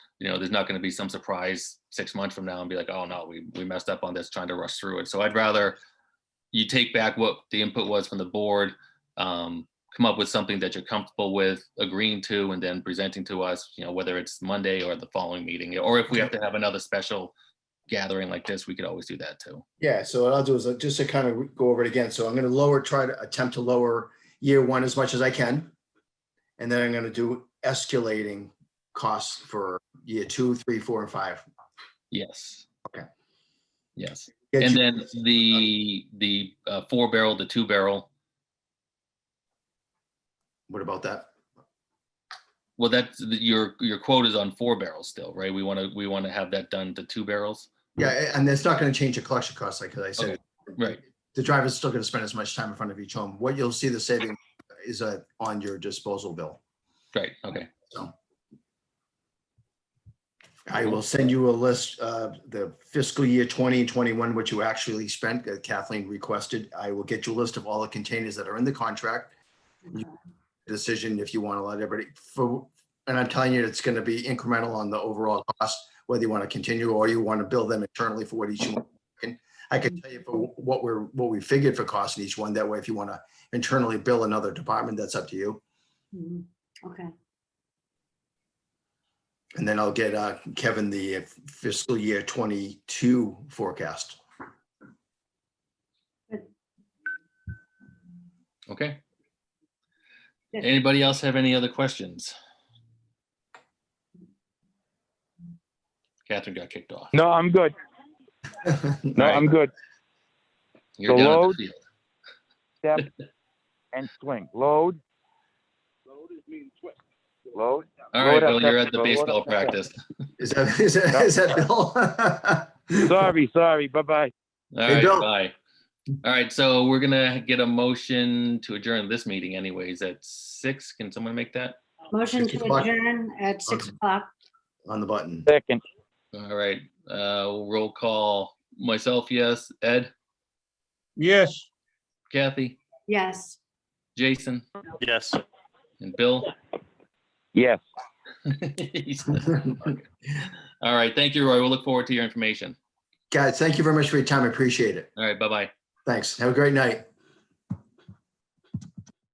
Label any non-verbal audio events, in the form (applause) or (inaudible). you know, there's not going to be some surprise six months from now and be like, oh no, we, we messed up on this trying to rush through it. So I'd rather you take back what the input was from the board, um, come up with something that you're comfortable with agreeing to and then presenting to us, you know, whether it's Monday or the following meeting, or if we have to have another special gathering like this, we could always do that too. Yeah, so what I'll do is uh, just to kind of go over it again. So I'm going to lower, try to attempt to lower year one as much as I can. And then I'm going to do escalating costs for year two, three, four, and five. Yes. Okay. Yes. Get And you- then the, the uh, four barrel, the two barrel, What about that? well, that's, your, your quote is on four barrels still, right? We want to, we want to have that done to two barrels. Yeah, and that's not going to change the collection costs, like I said. Right. The driver's still going to spend as much time in front of each home. What you'll see the saving is uh, on your disposal bill. Right, okay. I will send you a list of the fiscal year 2021, what you actually spent that Kathleen requested. I will get you a list of all the containers that are in the contract. You- Decision if you want to let everybody, for, and I'm telling you, it's going to be incremental on the overall cost, whether you want to continue or you want to bill them internally for what each. one. And I can tell you for what we're, what we figured for cost in each one. That way, if you want to internally bill another department, that's up to you. Mhm. Okay, And then I'll get uh, Kevin the fiscal year 22 forecast. Okay. Yes. Anybody else have any other questions? Catherine got kicked off. No, I'm good. (laughs) No, Right. I'm good. You're the down at load- the field. Step and swing. Load. Load. All right, load up Bill, you're that- at the load up baseball that field. practice. Is that, is that, is that Bill? Sorry, sorry. Bye bye. All They right, don't. bye. All right, so we're gonna get a motion to adjourn this meeting anyways at six. Can someone make that? motion Six to o'clock. adjourn at six Okay. o'clock. On the button. (laughs) Second. All right, uh, roll call. Myself, yes. Ed, Yes. Kathy, Yes, Jason, Yes. and Bill. (laughs) Yes. He's- All right, thank you, Roy. We'll look forward to your information. Guys, thank you very much for your time. I Appreciate it. All right, bye-bye. Thanks. Have a great night.